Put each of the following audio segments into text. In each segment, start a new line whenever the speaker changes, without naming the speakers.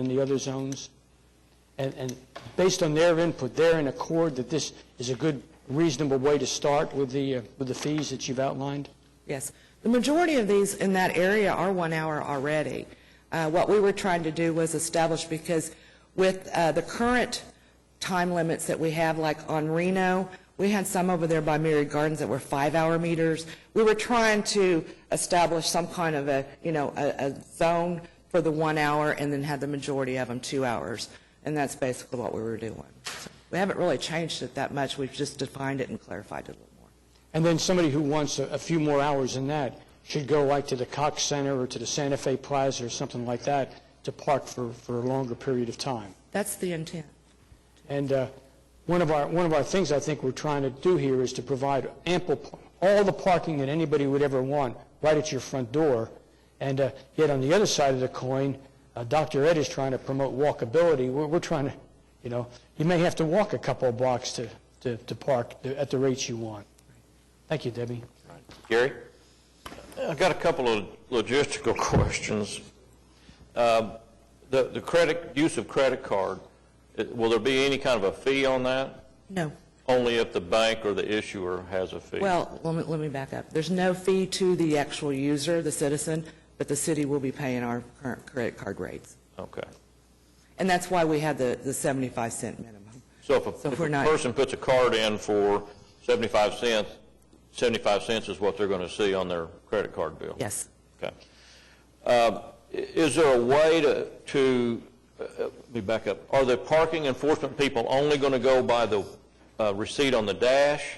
in the other zones. And, and based on their input, they're in accord that this is a good, reasonable way to start with the, uh, with the fees that you've outlined?
Yes. The majority of these in that area are one hour already. Uh, What we were trying to do was establish, because with uh, the current time limits that we have, like on Reno, we had some over there by Myriad Gardens that were five-hour meters. We were trying to establish some kind of a, you know, a a zone for the one hour, and then had the majority of them two hours. And that's basically what we were doing. So We haven't really changed it that much, we've just defined it and clarified it a little more.
And then somebody who wants a, a few more hours than that should go like to the Cox Center or to the Santa Fe Plaza or something like that to park for, for a longer period of time.
That's the intent.
And uh, one of our, one of our things I think we're trying to do here is to provide ample, p- all the parking that anybody would ever want right at your front door. And uh, yet on the other side of the coin, uh, Dr. Ed is trying to promote walkability. We're, we're trying to, you know, you may have to walk a couple of blocks to, to, to park th- at the rates you want. Thank you, Debbie.
Gary? I've got a couple of logistical questions. Um, The the credit, use of credit card, it- will there be any kind of a fee on that?
No.
Only if the bank or the issuer has a fee?
Well, let me, let me back up. There's no fee to the actual user, the citizen, but the city will be paying our current credit card rates.
Okay.
And that's why we had the, the 75 cent minimum.
So if a
So
if
we're
a
not-
person puts a card in for 75 cents, 75 cents is what they're going to see on their credit card bill?
Yes.
Okay. Um, i- Is there a way to, to, uh, uh, let me back up, are the parking enforcement people only going to go by the uh, receipt on the dash,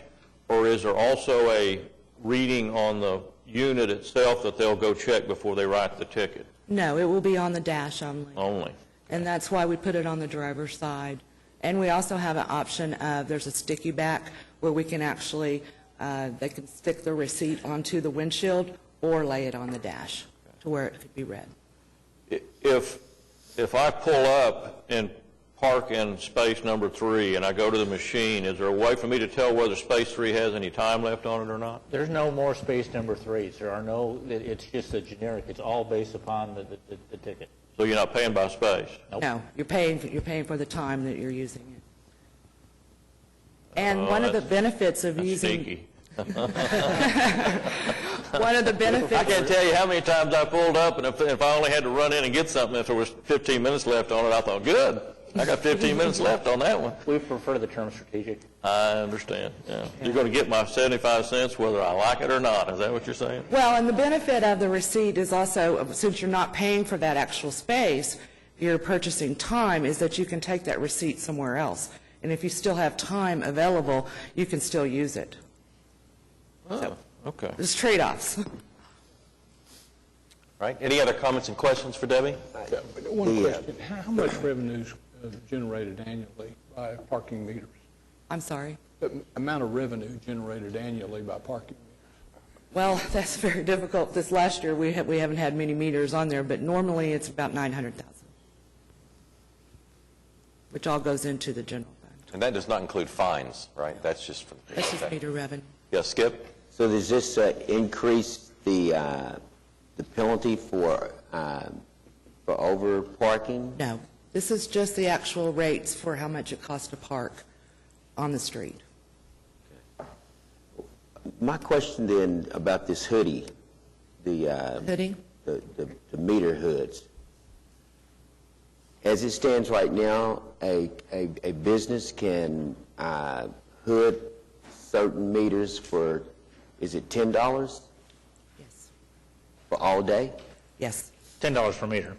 or is there also a reading on the unit itself that they'll go check before they write the ticket
No, it will be on the dash only.
only?
And that's why we put it on the driver's side. And we also have an option of, there's a sticky back where we can actually, uh, they can stick the receipt onto the windshield or lay it on the dash to where it could be read.
I- If, if I pull up and park in space number three and I go to the machine, is there a way for me to tell whether space three has any time left on it or not?
There's no more space number threes. There are no, it- it's just a generic, it's all based upon the, the- the ticket.
So you're not paying by space?
No, you're paying, you're paying for the time that you're using it. And one of the
Oh, that's-
benefits of
That's
using,
sneaky.
one of the
I
benefits,
can't tell you how many times I pulled up, and if, if I only had to run in and get something, if there was 15 minutes left on it, I thought, good, I got 15 minutes left on that one.
We prefer the term strategic.
I understand, yeah. You're going to get my 75 cents whether I like it or not, is that what you're saying?
well, and the benefit of the receipt is also, since you're not paying for that actual space, you're purchasing time, is that you can take that receipt somewhere else. And if you still have time available, you can still use it.
Oh, okay.
There's trade-offs.
Right, any other comments and questions for Debbie?
One question, how how much revenue is uh, generated annually by parking meters?
I'm sorry.
The m- amount of revenue generated annually by parking
Well, that's very difficult. This last year, we ha- we haven't had many meters on there, but normally it's about 900,000, which all goes into the general fund.
And that does not include fines, right? That's just for...
That's just meter revenue.
Yeah, Skip?
So does this uh, increase the, uh, the penalty for, uh, for over parking?
No, this is just the actual rates for how much it costs to park on the street.
My question then about this hoodie, the, uh,
Hoodie?
the, the the meter hoods. As it stands right now, a, a, a business can uh, hood certain meters for, is it $10
Yes.
for all day?
Yes,
$10 per meter.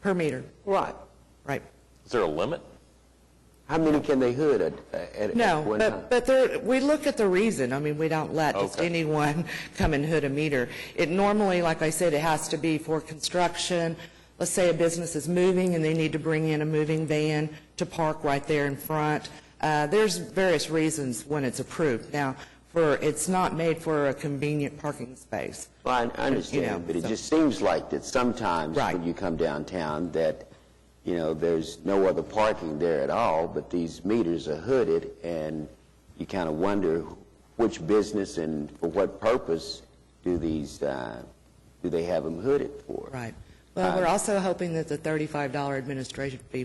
per meter,
Right.
right.
Is there a limit?
How many can they hood at, at at
No,
one time?
but, but there, we look at the reason. I mean, we don't let just anyone come and hood a meter. It normally, like I said, it has to be for construction. Let's say a business is moving and they need to bring in a moving van to park right there in front. Uh, there's various reasons when it's approved. Now, for, it's not made for a convenient parking space.
Well, I I
know,
understand, but it
so-
just seems like that sometimes
Right.
when you come downtown, that, you know, there's no other parking there at all, but these meters are hooded, and you kind of wonder which business and for what purpose do these, uh do they have them hooded for?
Right. Well, we're also hoping that the $35 administration fee